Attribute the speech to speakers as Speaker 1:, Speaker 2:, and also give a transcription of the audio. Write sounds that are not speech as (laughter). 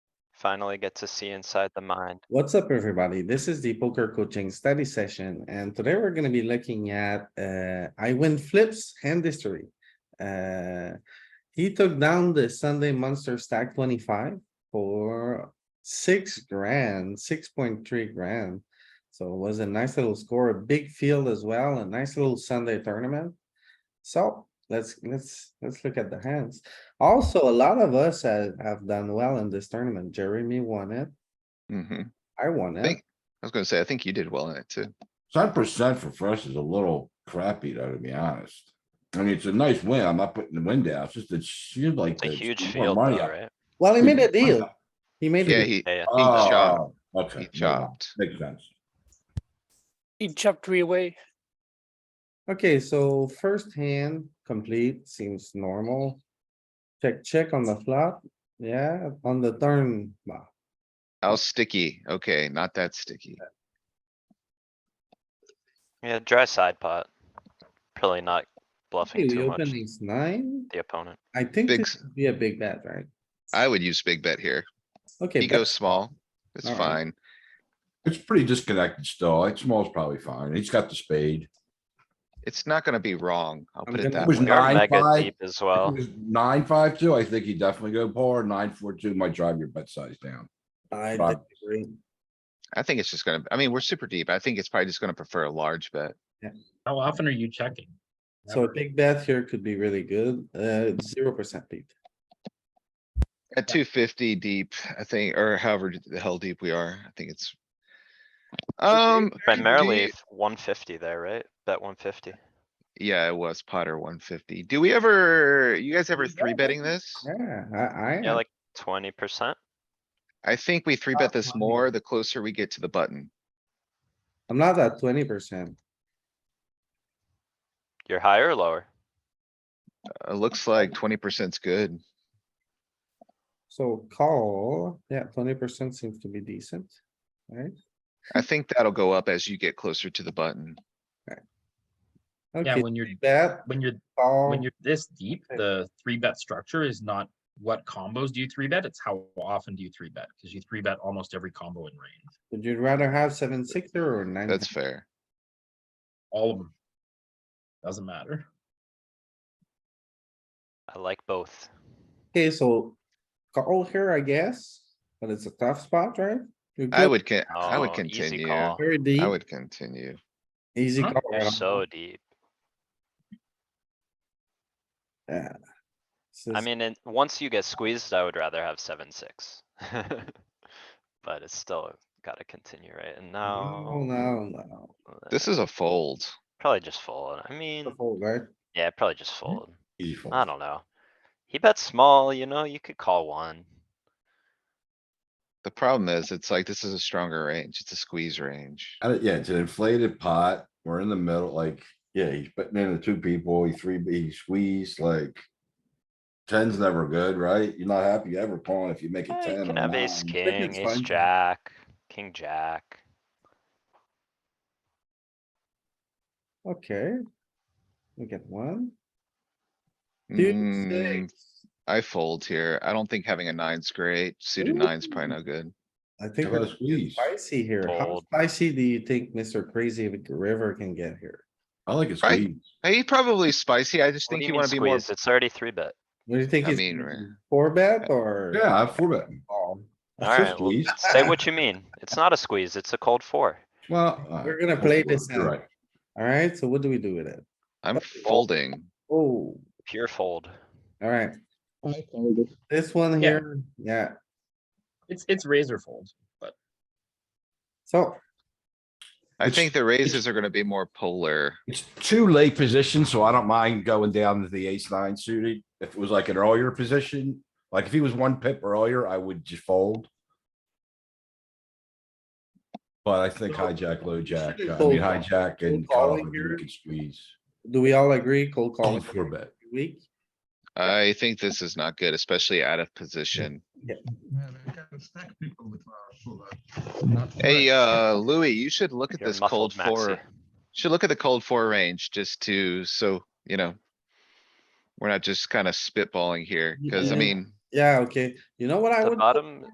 Speaker 1: finally get to see inside the mind.
Speaker 2: What's up, everybody? This is the poker coaching study session, and today we're gonna be looking at uh, I win flips hand history. Uh, he took down the Sunday monster stack twenty-five for six grand, six point three grand. So it was a nice little score, a big field as well, a nice little Sunday tournament. So let's, let's, let's look at the hands. Also, a lot of us have, have done well in this tournament. Jeremy won it.
Speaker 3: Mm-hmm.
Speaker 2: I won it.
Speaker 3: Thank- I was gonna say, I think you did well in it too.
Speaker 4: Seven percent for fresh is a little crappy though, to be honest. I mean, it's a nice win. I'm not putting the win down. It's just, it's shoot like.
Speaker 1: It's a
Speaker 4: the-
Speaker 1: huge
Speaker 4: shoot more
Speaker 1: field though,
Speaker 4: money out.
Speaker 1: right?
Speaker 2: Well, he made
Speaker 5: (laughs)
Speaker 2: a deal.
Speaker 4: Money
Speaker 2: He made
Speaker 3: Yeah,
Speaker 2: a deal.
Speaker 3: he,
Speaker 1: Yeah, yeah.
Speaker 4: out.
Speaker 3: chopped.
Speaker 4: Oh, Okay.
Speaker 3: he chopped.
Speaker 4: Makes sense.
Speaker 6: He chopped three away.
Speaker 2: Okay, so first hand complete seems normal. Check, check on the flop. Yeah, on the turn. bah,
Speaker 3: How sticky? Okay, not that sticky.
Speaker 1: Yeah, dry side pot. Probably not
Speaker 2: Okay,
Speaker 1: bluffing
Speaker 2: we
Speaker 1: too much
Speaker 2: open ace nine.
Speaker 1: the opponent.
Speaker 2: I think
Speaker 3: Big
Speaker 2: this
Speaker 3: s-
Speaker 2: would be a big bet, right?
Speaker 3: I would use big bet here.
Speaker 2: Okay,
Speaker 3: He
Speaker 2: bet-
Speaker 3: goes small. It's
Speaker 2: Alright.
Speaker 3: fine.
Speaker 4: It's pretty disconnected still. Like small's probably fine. He's got the spade.
Speaker 3: It's not gonna be wrong. I'll
Speaker 2: I'm
Speaker 3: put
Speaker 2: gonna-
Speaker 3: it that
Speaker 4: It was
Speaker 3: way.
Speaker 1: We are
Speaker 4: Nine,
Speaker 1: mega
Speaker 4: five.
Speaker 1: deep as
Speaker 4: If it
Speaker 1: well.
Speaker 4: was Nine, five, two, I think he definitely go par. Nine, four, two might drive your bet size down.
Speaker 2: I
Speaker 4: Bob.
Speaker 2: disagree.
Speaker 3: I think it's just gonna, I mean, we're super deep. I think it's probably just gonna prefer a large bet.
Speaker 5: How often are you checking?
Speaker 2: So a big bet here could be really good. Uh, zero percent beat.
Speaker 3: At two fifty deep, I think, or however the hell deep we are, I think it's. Um. do you-
Speaker 1: Primarily one fifty there, right? Bet one fifty.
Speaker 3: Yeah, it was Potter one fifty. Do we ever, you guys ever
Speaker 2: Yeah,
Speaker 3: three betting
Speaker 2: that's-
Speaker 3: this?
Speaker 2: Yeah, I, I.
Speaker 1: Yeah, like twenty percent.
Speaker 3: I think we three
Speaker 5: Not
Speaker 3: bet this
Speaker 5: mine.
Speaker 3: more the closer we get to the button.
Speaker 2: I'm not at twenty percent.
Speaker 1: You're higher or lower?
Speaker 3: It looks like twenty percent's good.
Speaker 2: So call, yeah, twenty percent seems to be decent. Right?
Speaker 3: I think that'll go up as you get closer to the button.
Speaker 5: Yeah,
Speaker 2: Okay,
Speaker 5: when you're,
Speaker 2: bet,
Speaker 5: when you're,
Speaker 2: call.
Speaker 5: when you're this deep,
Speaker 2: Okay.
Speaker 5: the three bet structure is not what combos do you three bet, it's how often do you three bet, because you three bet almost every combo in range,
Speaker 2: Would you rather have seven, six or nine?
Speaker 3: That's
Speaker 2: ten?
Speaker 3: fair.
Speaker 5: all of them. Doesn't matter.
Speaker 1: I like both.
Speaker 2: Okay, so call here, I guess, but it's a tough spot, right? You're
Speaker 3: I
Speaker 2: good,
Speaker 3: would can, I would
Speaker 1: Oh, easy
Speaker 3: continue.
Speaker 1: call.
Speaker 3: I
Speaker 2: Very deep,
Speaker 3: would continue.
Speaker 2: easy
Speaker 5: Huh?
Speaker 2: call.
Speaker 1: You're so deep.
Speaker 2: Yeah. This
Speaker 1: I
Speaker 2: is-
Speaker 1: mean, and once you get squeezed, I would rather have seven, six. (laughs) But it's still gotta continue, right? And
Speaker 2: No,
Speaker 1: now. uh,
Speaker 2: no, no.
Speaker 3: This is a fold.
Speaker 1: Probably just fold. I mean,
Speaker 2: The fold, right?
Speaker 1: yeah, probably just fold.
Speaker 4: Easy fold.
Speaker 1: I don't know. He bets small, you know, you could call one.
Speaker 3: The problem is, it's like, this is a stronger range. It's a squeeze range.
Speaker 4: I don't- yeah, it's an inflated pot. We're in the middle, like, yeah, he's putting in the two people, he three, he squeezed, like. Ten's never good, right? You're not happy ever calling if you make it
Speaker 1: Eh, You
Speaker 4: ten or
Speaker 1: can have ace,
Speaker 4: nine.
Speaker 1: king,
Speaker 2: it's
Speaker 1: ace,
Speaker 2: fine.
Speaker 1: jack, king, jack.
Speaker 2: Okay. We get one, two,
Speaker 3: Mm,
Speaker 2: six.
Speaker 3: I fold here. I don't think having a nine's great. Suited nine's probably no good.
Speaker 2: I think
Speaker 4: How
Speaker 2: we're
Speaker 4: about
Speaker 2: getting
Speaker 4: squeeze?
Speaker 2: spicy here. How
Speaker 1: Fold.
Speaker 2: spicy do you think Mister Crazy River can get here?
Speaker 4: I like it's.
Speaker 3: Right? Hey, probably spicy. I just
Speaker 1: What do
Speaker 3: think
Speaker 1: you
Speaker 3: you
Speaker 1: mean
Speaker 3: wanna be more,
Speaker 1: squeeze? It's already three bet.
Speaker 2: What do you think?
Speaker 3: I
Speaker 2: he's
Speaker 3: mean,
Speaker 2: thinking?
Speaker 3: right.
Speaker 2: Four bet or?
Speaker 4: Yeah, I four betting.
Speaker 2: call?
Speaker 1: Alright, well,
Speaker 3: (laughs)
Speaker 1: say what you mean. It's not a squeeze, it's a cold four.
Speaker 4: Well. all
Speaker 2: We're
Speaker 4: right,
Speaker 2: gonna
Speaker 4: I'll
Speaker 2: play
Speaker 4: fold,
Speaker 2: this
Speaker 4: you're
Speaker 2: out.
Speaker 4: right.
Speaker 2: Alright, so what do we do with it?
Speaker 3: I'm folding.
Speaker 2: Oh,
Speaker 1: Pure fold.
Speaker 2: alright,
Speaker 6: I folded.
Speaker 2: this one
Speaker 5: Yeah.
Speaker 2: here, yeah,
Speaker 5: It's, it's razor fold.
Speaker 2: so
Speaker 3: I
Speaker 4: It's-
Speaker 3: think the raises are gonna be more polar.
Speaker 4: It's too late position, so I don't mind going down to the ace nine suited. If it was like an earlier position, like if he was one pip earlier, I would just fold. But I think
Speaker 2: So,
Speaker 4: hijack, low jack,
Speaker 2: shouldn't
Speaker 4: I
Speaker 2: fold
Speaker 4: mean hijack
Speaker 2: Fold
Speaker 4: and call,
Speaker 2: calling
Speaker 4: if
Speaker 2: here?
Speaker 4: you can squeeze.
Speaker 2: do we all agree cold
Speaker 4: Call
Speaker 2: calling
Speaker 4: four bet.
Speaker 2: week?
Speaker 3: I think this is not good, especially out of position. Hey, uh, Louis, you should look at
Speaker 1: You're
Speaker 3: this cold
Speaker 1: muffled, Maxi.
Speaker 3: four. Should look at the cold four range just to, so, you know. We're not just kind of spitballing here, cause I
Speaker 2: Yeah.
Speaker 3: mean,
Speaker 2: Yeah, okay, you know what I
Speaker 1: The
Speaker 2: would,
Speaker 1: bottom,